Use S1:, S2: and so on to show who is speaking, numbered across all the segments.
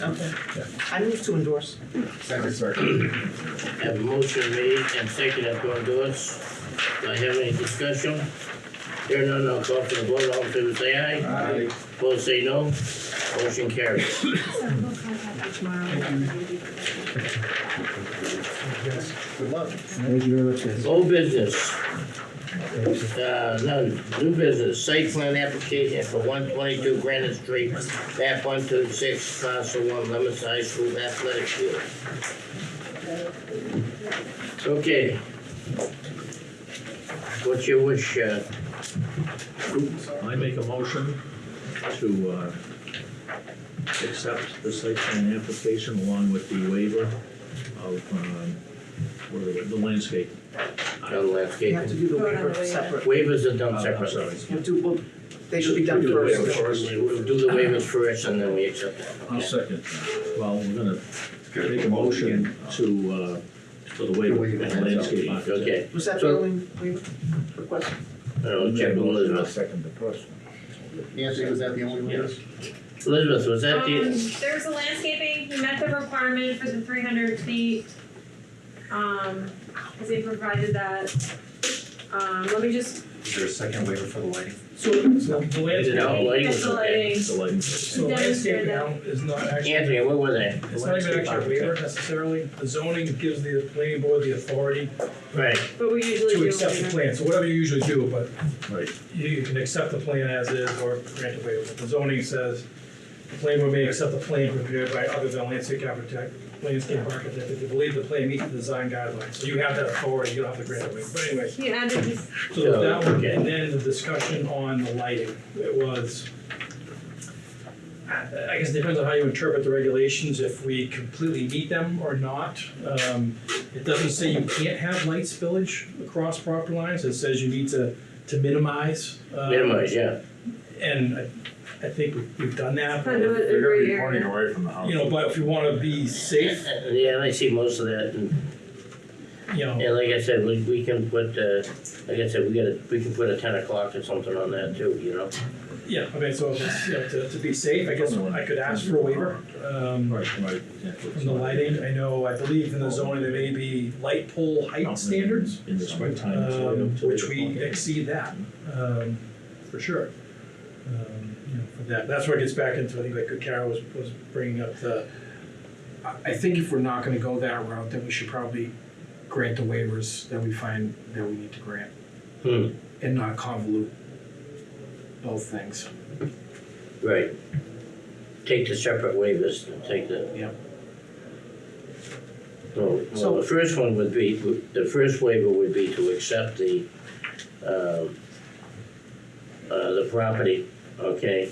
S1: Okay. I move to endorse.
S2: Have a motion made and seconded to endorse. Do I have any discussion? Hearing none, I'll call for the vote. All in favor, say aye.
S3: Aye.
S2: Opposed, say no. Motion carries.
S4: So we'll contact you tomorrow.
S3: Good luck.
S5: Thank you very much, guys.
S2: Old business, uh, none. New business, site plan application for one twenty-two Granite Street, map one two six, parcel one, Lemus High School Athletic Field. Okay. What's your wish, uh,
S6: I make a motion to uh, accept the site plan application along with the waiver of, um, what are they, the landscape.
S2: on
S1: You have to
S2: landscaping?
S1: do the
S4: Vote on the
S1: waiver
S4: waiver.
S1: separate.
S2: Waivers are
S6: Uh,
S2: done
S6: I'm
S2: separately.
S6: sorry.
S1: You have to, well, they should be done
S6: Do the waiver
S1: first.
S6: first.
S2: We'll do the waivers first and then we accept it.
S6: I'll second. Well, we're gonna make a motion to, uh, for the waiver
S3: The waiver,
S6: of landscape.
S2: Okay,
S1: Was that the
S2: So-
S1: only waiver request?
S2: I'll check with Elizabeth.
S3: Second the first Nancy, was that the only one?
S6: Yes.
S2: Elizabeth, was that
S4: Um,
S2: the,
S4: there was a landscaping, he met the requirement for the three hundred feet. Um, cause they provided that. Um, let me just,
S3: Is there a second waiver for the lighting?
S7: So, so the
S2: Is it
S7: landscape,
S2: out lighting?
S4: Yes, the lighting.
S6: The lighting.
S7: so the landscape now is not actually,
S2: Anthony, what was that?
S7: it's not even actually a waiver necessarily. The zoning gives the planning board the authority
S2: Right,
S4: but we usually do
S7: to
S4: a
S7: accept the
S4: waiver.
S7: plan, so whatever you usually do, but
S6: Right.
S7: you you can accept the plan as is or grant a waiver. The zoning says the planning board may accept the plan prepared by other than landscape architect, landscape architect, if they believe the plan meets the design guidelines. So you have that authority, you don't have to grant a waiver, but anyway.
S4: He added this,
S7: So that one,
S2: Okay.
S7: and then the discussion on the lighting, it was, I guess it depends on how you interpret the regulations, if we completely meet them or not. Um, It doesn't say you can't have light spillage across property lines, it says you need to, to minimize. um,
S2: minimize, yeah.
S7: And I, I think we've, we've done that,
S4: kind of
S7: but,
S4: a gray area.
S3: away from the house.
S7: you know, but if you wanna be safe,
S2: Uh, Yeah, I see most of that, and,
S7: you know,
S2: and like I said, we, we can put, uh, like I said, we gotta, we can put a ten o'clock or something on that too, you know?
S7: yeah, I mean, so if it's, you know, to, to be safe, I guess I could ask for a waiver. Um,
S6: Right, right.
S7: From the lighting, I know, I believe in the zoning, there may be light pole height standards,
S6: In the springtime. it's right
S7: um,
S6: up to
S7: which
S6: the-
S7: we exceed that, um, for sure. Um, You know, for that, that's where it gets back into, I think, like Carol was, was bringing up the,
S8: I I think if we're not gonna go that route, then we should probably grant the waivers that we find that we need to grant
S2: Hmm,
S8: and not convolute both things.
S2: right. Take the separate waivers, and take the.
S8: Yeah.
S2: Well, well, the first one would be, the first waiver would be to accept the, um, uh, the property, okay,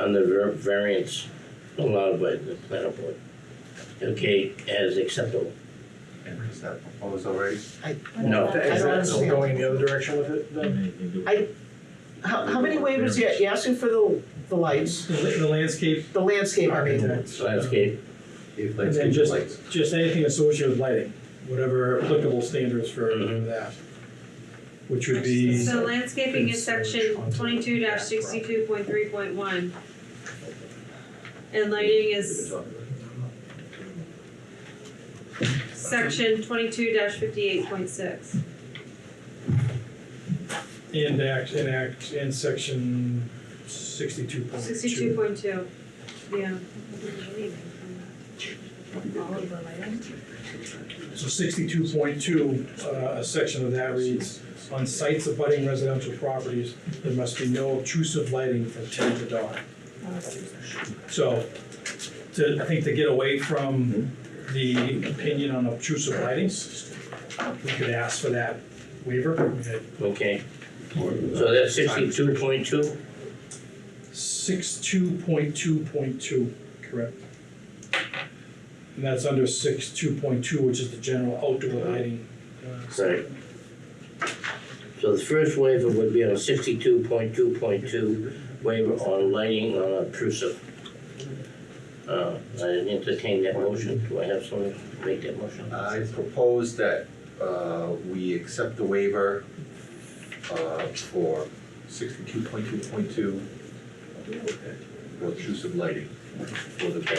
S2: on the ver- variance allowed by the planning board. Okay, as acceptable.
S3: Is that proposed already?
S2: No.
S1: I don't understand.
S8: Going the other direction with it then?
S6: Anything to do with-
S1: I- How, how many waivers, you you're asking for the, the lights,
S7: the la- the landscape
S1: the landscape, I mean,
S7: architect.
S2: Landscape,
S3: If
S7: And then just, just anything associated with lighting, whatever applicable standards for
S2: Mhm.
S6: Mm-hmm.
S7: that. Which would be.
S4: So landscaping is section twenty-two sixty-two point three point one. And lighting is section twenty-two fifty-eight point six.
S7: And act, and act, and section sixty-two point two.
S4: Sixty-two point two, yeah.
S7: So sixty-two point two, uh, a section of that reads, on sites abutting residential properties, there must be no obtrusive lighting from ten to dawn. So, to, I think to get away from the opinion on obtrusive lightings, we could ask for that waiver.
S2: okay. So that's sixty-two point two,
S7: Six-two point two point two, correct. And that's under six-two point two, which is the general outdoor lighting. uh,
S2: right? So the first waiver would be on sixty-two point two point two, waiver on lighting on obtrusive. Uh, I entertain that motion, do I have someone to make that motion?
S3: I propose that uh, we accept the waiver uh, for sixty-two point two point two, for intrusive lighting for the